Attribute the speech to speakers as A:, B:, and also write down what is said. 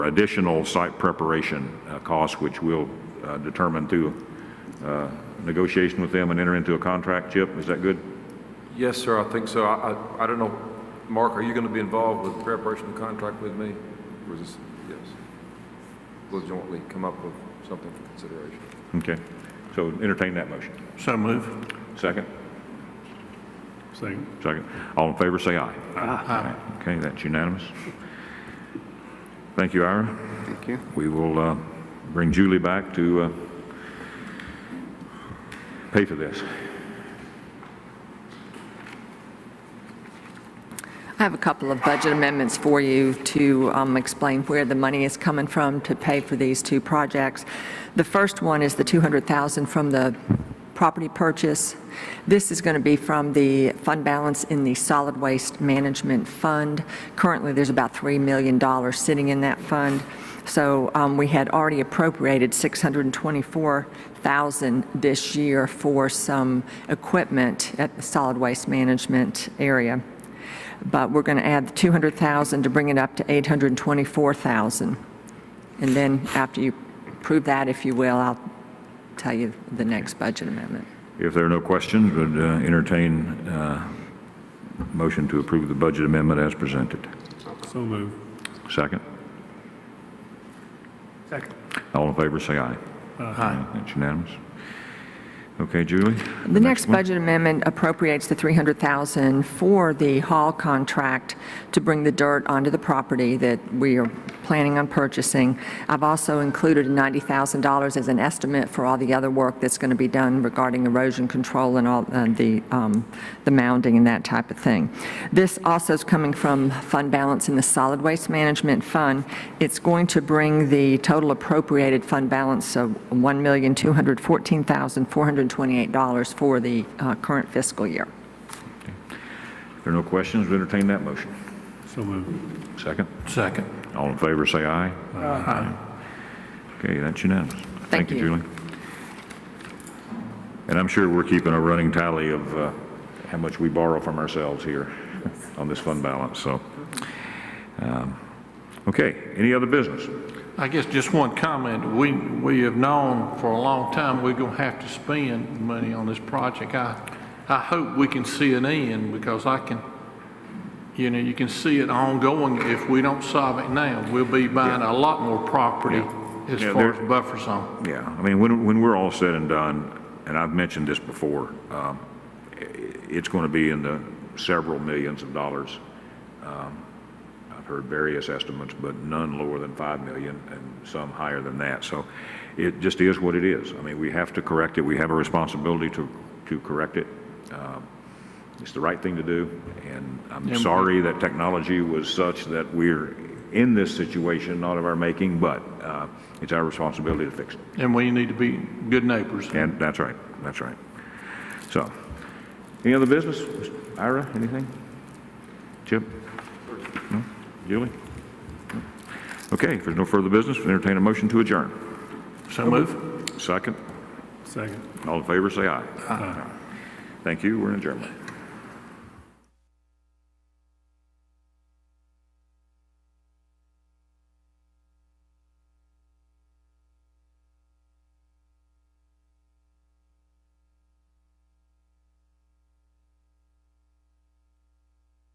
A: additional site preparation uh, costs, which we'll uh, determine through uh, negotiation with them and enter into a contract, Chip, is that good?
B: Yes, sir, I think so. I, I, I don't know, Mark, are you going to be involved with preparation of contract with me? Or is this, yes? We'll jointly come up with something for consideration.
A: Okay, so entertain that motion.
C: So move.
A: Second?
C: Second.
A: Second. All in favor, say aye. Aye. Okay, that's unanimous. Thank you, Ira.
D: Thank you.
A: We will uh, bring Julie back to uh, pay for this.
E: I have a couple of budget amendments for you to um, explain where the money is coming from to pay for these two projects. The first one is the 200,000 from the property purchase. This is going to be from the fund balance in the Solid Waste Management Fund. Currently, there's about $3 million sitting in that fund. So um, we had already appropriated 624,000 this year for some equipment at the solid waste management area but we're going to add the 200,000 to bring it up to 824,000. And then after you prove that, if you will, I'll tell you the next budget amendment.
A: If there are no questions, would uh, entertain uh, motion to approve the budget amendment as presented.
C: So move.
A: Second?
C: Second.
A: All in favor, say aye. Aye. That's unanimous. Okay, Julie?
E: The next
A: one?
E: budget amendment appropriates the 300,000 for the hall contract to bring the dirt onto the property that we are planning on purchasing. I've also included $90,000 as an estimate for all the other work that's going to be done regarding erosion control and all, and the, um, the mounding and that type of thing. This also is coming from fund balance in the solid waste management fund. It's going to bring the total appropriated fund balance of $1,214,428 for the uh, current fiscal year.
A: If there are no questions, would entertain that motion.
C: So move.
A: Second?
C: Second.
A: All in favor, say aye. Aye. Okay, that's unanimous.
E: Thank you.
A: Julie. And I'm sure we're keeping a running tally of uh, how much we borrow from ourselves here on this fund balance, so. um, Okay, any other business?
F: I guess just one comment. We, we have known for a long time we're going to have to spend money on this project. I, I hope we can see an end because I can, you know, you can see it ongoing. If we don't solve it now, we'll be buying a lot more property as
A: Yeah,
F: far
A: there-
F: as buffer zone.
A: Yeah, I mean, when, when we're all said and done, and I've mentioned this before, um, i- it's going to be in the several millions of dollars. Um, I've heard various estimates, but none lower than 5 million and some higher than that. So it just is what it is. I mean, we have to correct it. We have a responsibility to, to correct it. Um, It's the right thing to do, and I'm sorry that technology was such that we're in this situation, not of our making, but uh, it's our responsibility to fix it.
F: And we need to be good neighbors.
A: And that's right, that's right. So, any other business? Ira, anything? Chip? No? Julie? No? Okay, if there's no further business, we entertain a motion to adjourn.
F: So move.
A: Second,
C: Second.
A: all in favor, say aye. Thank you, we're adjourned.